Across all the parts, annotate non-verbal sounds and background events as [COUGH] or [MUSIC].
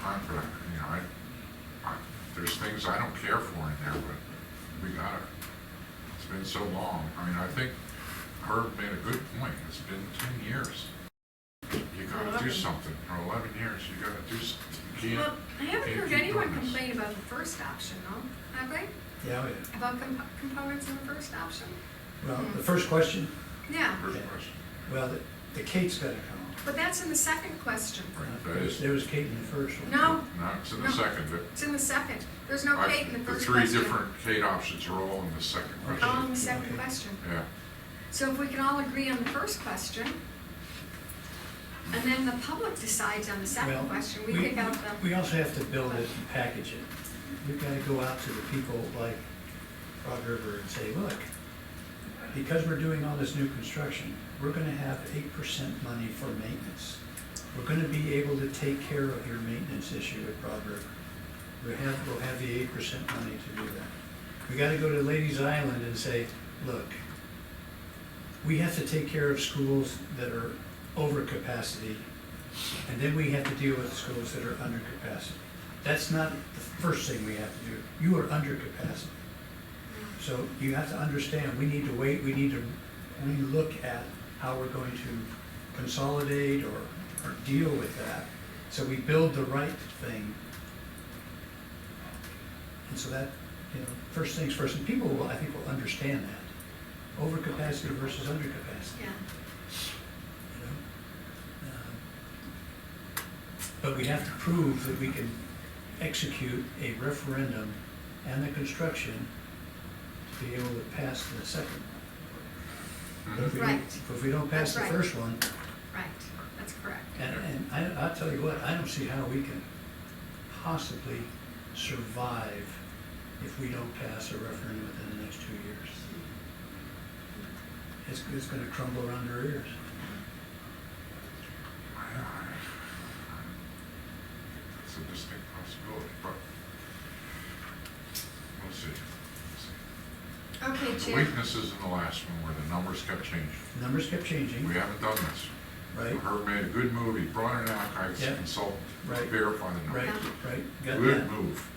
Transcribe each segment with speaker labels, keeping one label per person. Speaker 1: time for that, you know, I, I, there's things I don't care for in there, but we got it. It's been so long, I mean, I think Herb made a good point, it's been ten years. You gotta do
Speaker 2: Eleven.
Speaker 1: something, or eleven years, you gotta do something, you can't.
Speaker 2: Well, I haven't
Speaker 1: can't
Speaker 2: heard
Speaker 1: keep
Speaker 2: anyone
Speaker 1: doing this.
Speaker 2: complain about the first option, though, have they?
Speaker 3: Yeah, oh, yeah.
Speaker 2: About comp- components in the first option?
Speaker 3: Well, the first question,
Speaker 2: Yeah,
Speaker 1: First question,
Speaker 3: well, the, the Kate's gotta come
Speaker 2: but that's in the second question.
Speaker 1: right,
Speaker 3: up.
Speaker 1: that is,
Speaker 3: There was Kate in the first one.
Speaker 2: No,
Speaker 1: no, it's in the
Speaker 2: No.
Speaker 1: second, but
Speaker 2: it's in the second. There's no
Speaker 1: I-
Speaker 2: Kate in the
Speaker 1: the
Speaker 2: first
Speaker 1: three
Speaker 2: question. Um,
Speaker 1: different Kate options are all in the second
Speaker 2: All in
Speaker 1: question.
Speaker 2: the second
Speaker 3: Okay.
Speaker 2: question.
Speaker 1: Yeah,
Speaker 2: So if we can all agree on the first question, and then the public decides on the
Speaker 3: Well,
Speaker 2: second question, we pick out the,
Speaker 3: We also have to build it and package it. We've gotta go out to the people like Frog River and say, look, because we're doing all this new construction, we're gonna have eight percent money for maintenance. We're gonna be able to take care of your maintenance issue at Frog River. We have, we'll have the eight percent money to do that. We gotta go to Ladies Island and say, look, we have to take care of schools that are over capacity, and then we have to deal with schools that are under capacity. That's not the first thing we have to do. You are under capacity. So you have to understand, we need to wait, we need to relook at how we're going to consolidate or, or deal with that. So we build the right thing. And so that, you know, first things first, and people will, I think, will understand that. Overcapacity versus undercapacity,
Speaker 2: yeah.
Speaker 3: you know? Um, But we have to prove that we can execute a referendum and the construction to be able to pass the second
Speaker 1: Mm-hmm.
Speaker 3: one. But if we don't-
Speaker 2: Right.
Speaker 3: If we don't pass the
Speaker 2: That's right.
Speaker 3: first one,
Speaker 2: Right, that's correct.
Speaker 3: and, and I, I'll tell you what, I don't see how we can possibly survive if we don't pass a referendum within the next two years. It's, it's gonna crumble around our ears.
Speaker 1: It's a distinct possibility, but we'll see. We'll
Speaker 2: Okay,
Speaker 1: see. The
Speaker 2: Chair.
Speaker 1: weaknesses in the last one where the numbers kept changing.
Speaker 3: Numbers kept changing,
Speaker 1: We haven't done this.
Speaker 3: right,
Speaker 1: Herb made a good move, he brought in an archives
Speaker 3: Yeah.
Speaker 1: consultant to
Speaker 3: Right.
Speaker 1: verify the
Speaker 3: right,
Speaker 1: numbers.
Speaker 3: right, got
Speaker 1: Good
Speaker 3: that.
Speaker 1: move.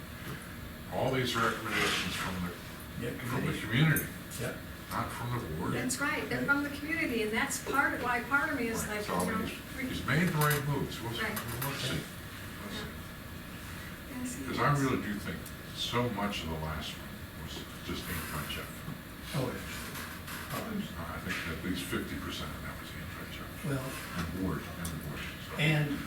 Speaker 1: All these recommendations from the,
Speaker 3: Yeah,
Speaker 1: from the
Speaker 3: committee,
Speaker 1: community,
Speaker 3: yeah,
Speaker 1: not from the board.
Speaker 2: That's right, they're from the community, and that's part, of why part of me is like,
Speaker 1: So, I
Speaker 2: you
Speaker 1: mean,
Speaker 2: know.
Speaker 1: he's- He's made the right moves, we'll, we'll see.
Speaker 2: Right.
Speaker 1: We'll see.
Speaker 2: yes,
Speaker 1: Because I
Speaker 2: yes.
Speaker 1: really do think so much of the last one was just ink check. Uh,
Speaker 3: oh, it's- oh, it's-
Speaker 1: I think at least fifty percent of that was ink check.
Speaker 3: well,
Speaker 1: And board, and the board. so.
Speaker 3: and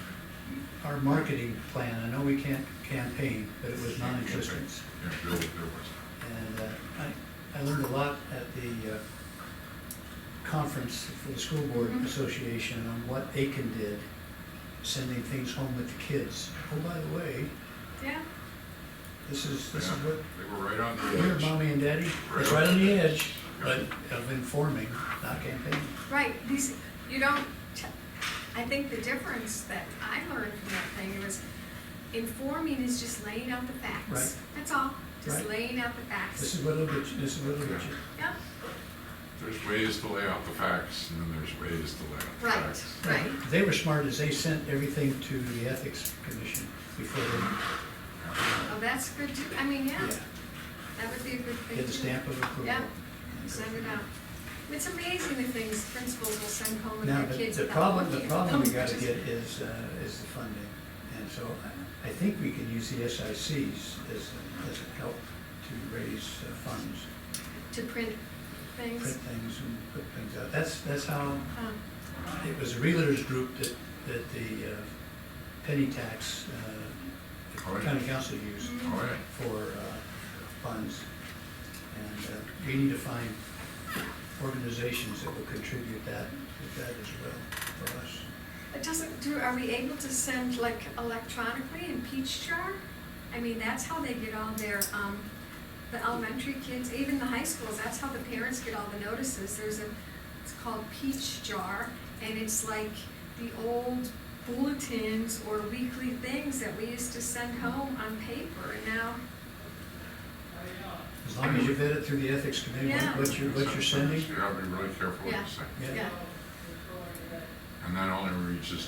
Speaker 3: our marketing plan, I know we can't campaign, but it was non-existent.
Speaker 1: Yeah, there was, there was.
Speaker 3: And uh, I, I learned a lot at the uh, conference for the School Board
Speaker 2: Mhm.
Speaker 3: Association on what Aiken did, sending things home with the kids. Oh, by the way,
Speaker 2: Yeah,
Speaker 3: this is, this is
Speaker 1: Yeah,
Speaker 3: what,
Speaker 1: They were right on
Speaker 3: here,
Speaker 1: the edge.
Speaker 3: mommy and daddy, it's right on the edge, but of informing, not campaigning.
Speaker 2: right, these, you don't, t- I think the difference that I learned from that thing was informing is just laying out the facts.
Speaker 3: Right.
Speaker 2: That's all, just
Speaker 3: Right.
Speaker 2: laying out the facts.
Speaker 3: This is what'll get you, this is what'll get you.
Speaker 2: Yep,
Speaker 1: There's ways to lay out the facts, and then there's ways to lay out the
Speaker 2: Right.
Speaker 1: facts.
Speaker 2: Right.
Speaker 3: They were smart as they sent everything to the Ethics Commission before they,
Speaker 2: oh, that's good too, I mean, yeah,
Speaker 3: yeah,
Speaker 2: that would be a good thing.
Speaker 3: get the
Speaker 2: too.
Speaker 3: stamp of approval.
Speaker 2: Yeah. Send it out. It's amazing the things principals will send home with
Speaker 3: Now,
Speaker 2: their
Speaker 3: the
Speaker 2: kids.
Speaker 3: the
Speaker 2: without
Speaker 3: problem, the
Speaker 2: looking at
Speaker 3: problem
Speaker 2: [LAUGHS]
Speaker 3: we
Speaker 2: them,
Speaker 3: gotta
Speaker 2: which is-
Speaker 3: get is, uh, is the funding. And so uh, I, I think we can use the SICs as, a- as a help to raise uh, funds,
Speaker 2: To print
Speaker 3: print
Speaker 2: things.
Speaker 3: things and put things out. That's, that's how,
Speaker 2: Huh.
Speaker 3: it was the realtors group that, that the uh, penny tax, uh,
Speaker 1: Oh, yeah.
Speaker 3: county council used
Speaker 2: Mm.
Speaker 1: All right,
Speaker 3: for uh, funds. And uh, we need to find organizations that will contribute that, with that as well for us.
Speaker 2: It doesn't do, are we able to send like electronically in peach jar? I mean, that's how they get all their, um, the elementary kids, even the high schools, that's how the parents get all the notices. There's a, it's called peach jar, and it's like the old bulletins or weekly things that we used to send home on paper, and now
Speaker 3: As long as you vet it through the ethics committee,
Speaker 2: Yeah.
Speaker 3: what you're, what you're sending,
Speaker 1: You gotta be really careful what
Speaker 2: Yeah.
Speaker 1: you say.
Speaker 3: yeah,
Speaker 2: Yeah,
Speaker 1: And that only reaches